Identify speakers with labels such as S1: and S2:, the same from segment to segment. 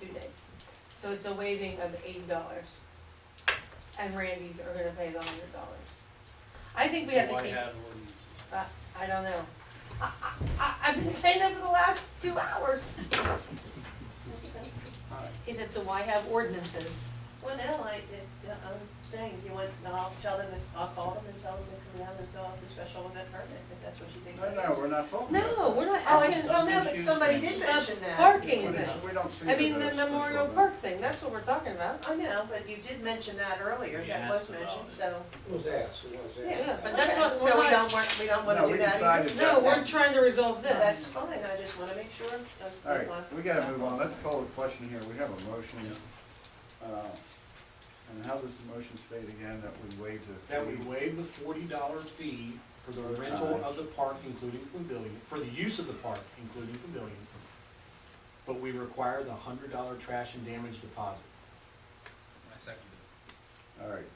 S1: two days. So it's a waiving of eighty dollars. And Randy's are gonna pay the hundred dollars. I think we have to
S2: So
S1: keep,
S2: why have ordinances?
S1: I don't know. I, I, I've been saying that for the last two hours.
S2: Alright,
S1: He said, so why have ordinances?
S3: Well, now, I, it- I'm saying, you want, I'll tell them, if- I'll call them and tell them to come down and fill out the special event permit, if that's what you think.
S4: No, no, we're not talking about
S1: No,
S4: that.
S1: we're not
S3: Oh, I-
S1: asking,
S3: well, no, but somebody did mention
S1: the
S3: that.
S1: parking
S4: But
S1: thing.
S4: it's- We don't see it
S1: I mean,
S4: as
S1: the
S4: a special
S1: memorial
S4: event.
S1: park thing, that's what we're talking about.
S3: I know, but you did mention that earlier,
S2: Yeah,
S3: that was
S2: that's about
S3: mentioned,
S2: it.
S3: so.
S5: It was asked, it was asked.
S1: Yeah, but that's what-
S3: So
S1: we're not-
S3: we don't want, we don't wanna
S4: No, we
S3: do that either.
S4: decided that.
S1: No, we're trying to resolve
S3: No, That's
S1: this.
S3: fine, I just wanna make sure. of-
S4: All right, we gotta move on, let's call the question here, we have a motion. uh, And how does the motion state again, that we waive the fee?
S2: That we waive the forty dollar fee for the rental of the park, including pavilion, for the use of the park, including pavilion. But we require the hundred dollar trash and damage deposit.
S6: I second
S4: All right.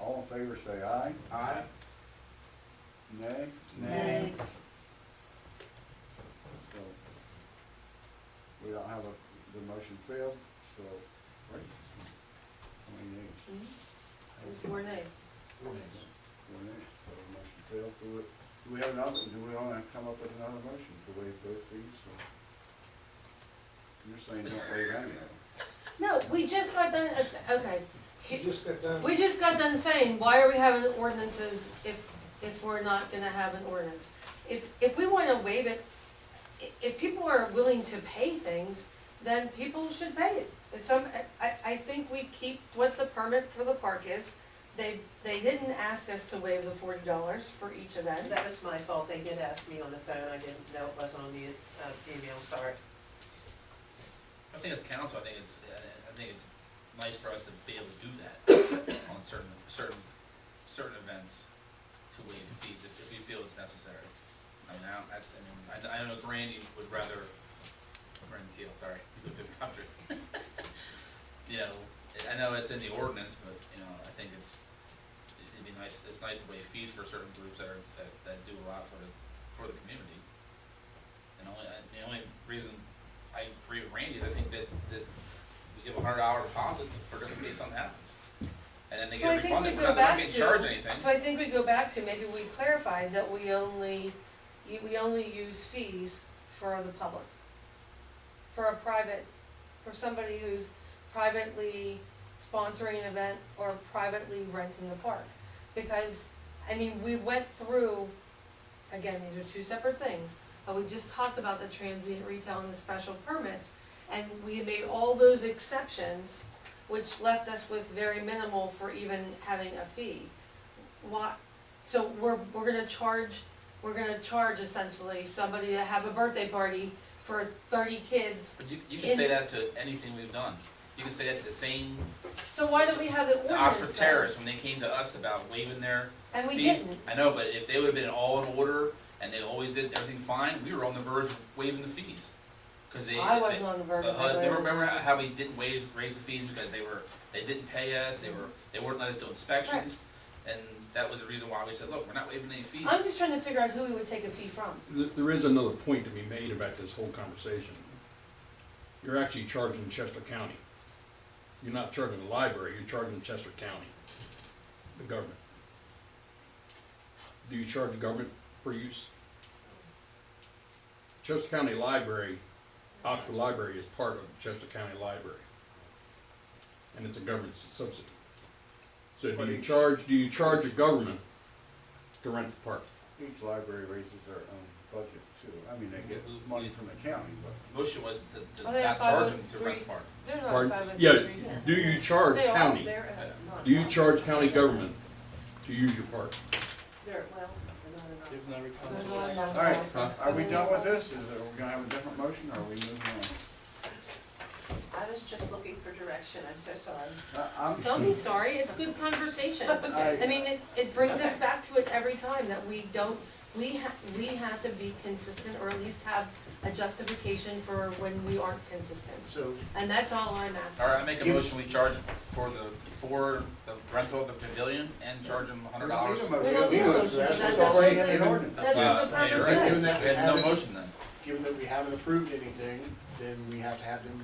S4: All in favor, say aye.
S2: Alright?
S4: Nay?
S1: Nay.
S4: So, We don't have a, the motion failed, so, right? How many nays?
S1: Mhm. Four days.
S4: Four nays, so the motion failed. Do we, do we have another, do we wanna come up with another motion to waive both fees, or? You're saying don't waive any of them.
S1: No, we just got done, it's, okay.
S5: You just got done.
S1: We just got done saying, why are we having ordinances if, if we're not gonna have an ordinance? If, if we wanna waive it, i- if people are willing to pay things, then people should pay it. If some, I, I think we keep what the permit for the park is. They, they didn't ask us to waive the forty dollars for each event.
S3: That was my fault, they did ask me on the phone, I didn't know it was on the, uh, email, sorry.
S6: it. I think as council, I think it's, uh, I think it's nice for us to be able to do that on certain, certain, certain events to waive the fees if, if we feel it's necessary. I mean, I don't, that's, I mean, I, I know Randy would rather, Randy Teal, sorry, he lived in the country. You know, I know it's in the ordinance, but, you know, I think it's, it'd be nice, it's nice to waive fees for certain groups that are, that, that do a lot for, the for the community. And only, I- the only reason I agree with Randy, is I think that, that we give a hundred dollar deposit for just in case something happens. And then they
S1: So I
S6: get
S1: think we go
S6: refunded, we're not, we're
S1: back
S6: not getting
S1: to-
S6: charged anything.
S1: So I think we go back to, maybe we clarify that we only, you- we only use fees for the public. For a private, for somebody who's privately sponsoring an event or privately renting the park. Because, I mean, we went through, again, these are two separate things, but we just talked about the transient retail and the special permits. And we had made all those exceptions which left us with very minimal for even having a fee. Why, so we're, we're gonna charge, we're gonna charge essentially somebody to have a birthday party for thirty kids.
S6: But you, you can say that to anything we've done. You can say that to the same,
S1: So why don't we have the
S6: the
S1: ordinance
S6: Oxford
S1: then?
S6: Terrace, when they came to us about waiving their
S1: And we
S6: fees.
S1: didn't,
S6: I know, but if they would've been all in order and they always did everything fine, we were on the verge of waiving the fees. Cause they,
S1: I
S6: they-
S1: wasn't on the verge
S6: Uh,
S1: of
S6: uh,
S1: it.
S6: remember, remember how we didn't raise, raise the fees because they were, they didn't pay us, they were, they weren't letting us do inspections? And that was the reason why we said, look, we're not waiving any fees.
S1: I'm just trying to figure out who we would take a fee from.
S7: Th- There is another point to be made about this whole conversation. You're actually charging Chester County. You're not charging the library, you're charging Chester County, the government. Do you charge the government for use? Chester County Library, Oxford Library is part of the Chester County Library. And it's a government subsidy. So do you charge, do you charge a government to rent the park?
S4: Each library raises their own budget too, I mean, they get money from the county, but.
S6: Motion was
S1: Are
S6: to, to
S1: they a
S6: not charge them to rent the
S1: 503s?
S6: park.
S1: They're not
S7: Pardon?
S1: five oh
S7: Yeah,
S1: three.
S7: do you charge
S1: They are.
S7: county?
S3: They're, uh, not.
S7: Do you charge county government to use your park?
S3: They're, well, they're not enough.
S2: They've never come
S1: They're
S2: to us.
S1: not on
S4: All right,
S7: Huh?
S4: are we done with this? Is it, we're gonna have a different motion, or are we moving on?
S3: I was just looking for direction, I'm so sorry.
S4: I,
S1: that. Don't be sorry, it's good conversation.
S4: I'm,
S1: I
S4: I,
S1: mean, it, it brings us back to it every time, that we don't, we ha- we have to be consistent, or at least have a justification for when we aren't consistent.
S2: So,
S1: And that's all I'm asking.
S6: Alright, I make a
S2: You-
S6: motion, we charge for the, for the rental of the pavilion and charge them
S4: we
S6: hundred
S4: need
S6: dollars.
S4: a
S1: We don't need
S4: motion.
S5: Yeah,
S1: a motion,
S5: that's
S1: that- that's
S4: already
S1: what
S4: in the
S1: they-
S4: ordinance.
S1: That's
S6: Uh,
S1: what the
S6: yeah,
S1: permit
S6: right.
S1: says.
S6: We had no motion then.
S2: given that we haven't approved anything, then we have to have them